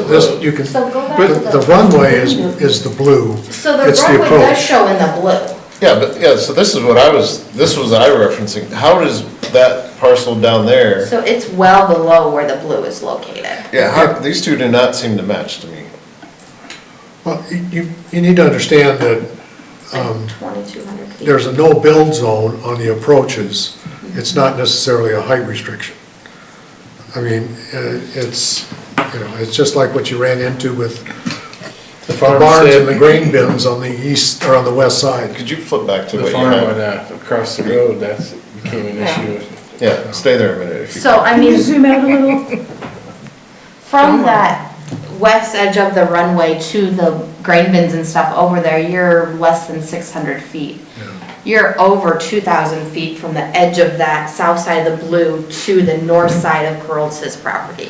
this, you can, So go back to but the the- runway is, is the blue. So the It's the runway does approach. show in the blue. Yeah, but, yeah, so this is what I was, this was I referencing, how does that parcel down there? So it's well below where the blue is located. Yeah, how, these two do not seem to match to me. Well, you- you, you need to understand that It's like 2,200 feet. Um, there's a no-build zone on the approaches. It's not necessarily a height restriction. I mean, uh, it's, you know, it's just like what you ran into with the farm barns and stand. the grain bins on the east, or on the west side. Could you flip back to The what you farm on, had? uh, across the road, that's became an issue. Yeah, stay there a minute if you. So I Can you mean, zoom out a little? from that west edge of the runway to the grain bins and stuff over there, you're less than 600 feet. You're over 2,000 feet from the edge of that south side of the blue to the north side of Carol's property.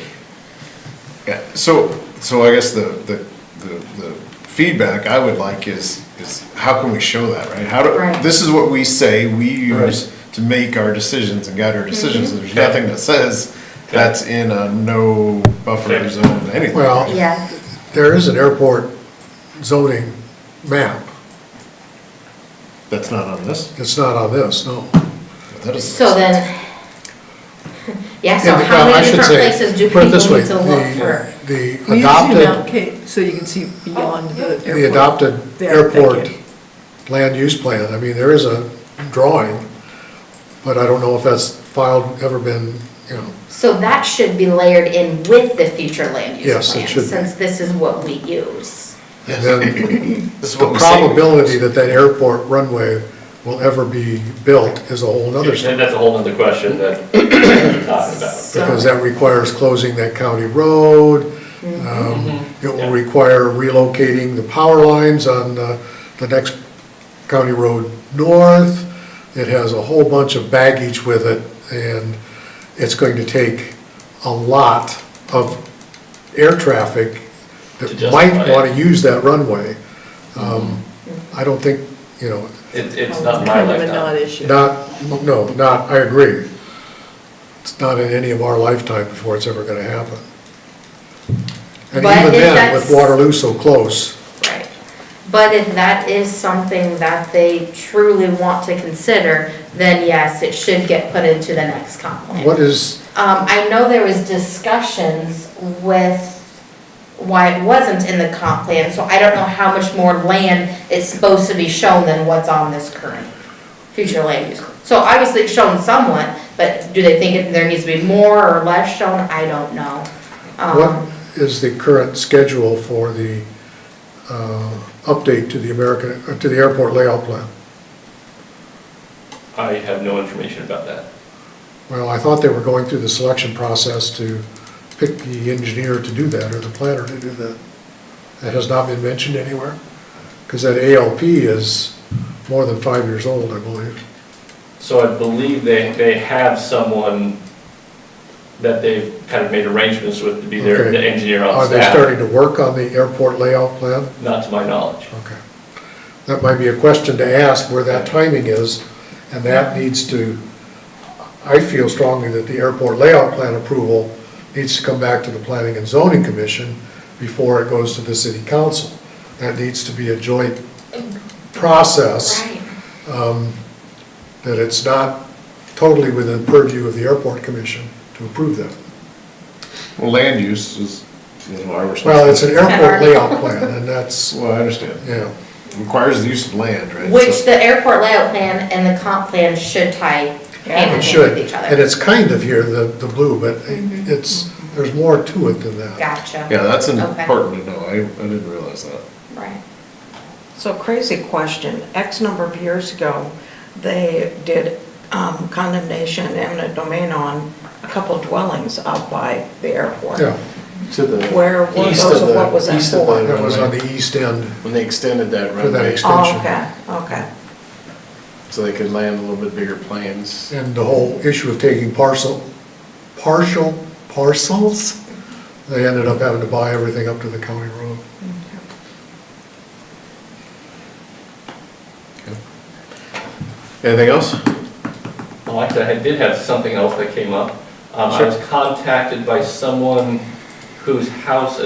Yeah, so, so I guess the, the, the the feedback I would like is, is how can we show that, right? How Right. do, this is what we say we use to make our decisions and guide our Mm-hmm. decisions, and there's nothing that says that's in a no buffer Okay. zone, anything. Well- Yeah. There is an airport zoning map. That's not on this, It's not on this, no. that is. So then, yeah, so Yeah, the- how well, I many should different say, places do put it people this way, uh, need to look for? The Will the you zoom out, adopted, Kate, so you can see beyond the airport? the adopted There, thank you. airport land use plan, I mean, there is a drawing, but I don't know if that's filed, ever been, you know, So that should be layered in with the future land use Yes, it plan, should be. since this is what we use. and then This is the what we say we- probability that that airport runway will ever be built is a whole nother story. And that's a whole nother question that we're talking about. because that requires closing that county road. Mm-hmm. Um, It will require relocating the power lines on uh, the next county road north. It has a whole bunch of baggage with it, and it's going to take a lot of air traffic To that might justify it. Mm-hmm. want to use that runway. Um, I don't think, you know, It, it's not my Kind of a lifetime. non-issue. not, no, not, I agree. It's not in any of our lifetime before it's ever gonna happen. And But even if then, with that's- Waterloo so close, Right. But if that is something that they truly want to consider, then yes, it should get put into the next comp plan. what is, Um, I know there was discussions with why it wasn't in the comp plan, so I don't know how much more land is supposed to be shown than what's on this current future land use. So obviously it's shown somewhat, but do they think it- there needs to be more or less shown? I don't know. what Um, is the current schedule for the, uh, update to the American, uh, to the airport layout plan? I have no information about that. Well, I thought they were going through the selection process to pick the engineer to do that, or the planner to do that. That has not been mentioned anywhere, because that ALP is more than five years old, I believe. So I believe they, they have someone that they've kind of made arrangements with to be their, Okay. the engineer on Are they starting staff. to work on the airport layout plan? Not to my knowledge. Okay. That might be a question to ask where that timing is, and that needs to, I feel strongly that the airport layout plan approval needs to come back to the Planning and Zoning Commission before it goes to the city council. That needs to be a joint process, Right. that it's not totally within purview of the airport commission to approve that. Well, land use is, is our Well, it's an responsibility. airport layout plan, and that's, Well, I understand, yeah, requires the use of land, right? Which So- the airport layout plan and the comp plan should tie hand in it hand should. with each other. Mm-hmm. And it's kind of here, the, the blue, but it's, there's more to it than that. Gotcha. Yeah, that's Okay. important to know, I, I didn't realize that. Right. So crazy question. X number of years ago, they did um, condemnation and a domain on a couple dwellings out by the airport. Yeah, To the Where were east those, of the- what was that east of for? that was on the east end. When they extended that For that runway, extent. Oh, okay, okay. so they could land a little bit bigger planes. And the whole issue of taking parcel, partial parcels, they ended up having to buy everything up to the county road. Anything else? Well, actually, Oh, I did have something else that came up. Um, I was contacted by someone whose house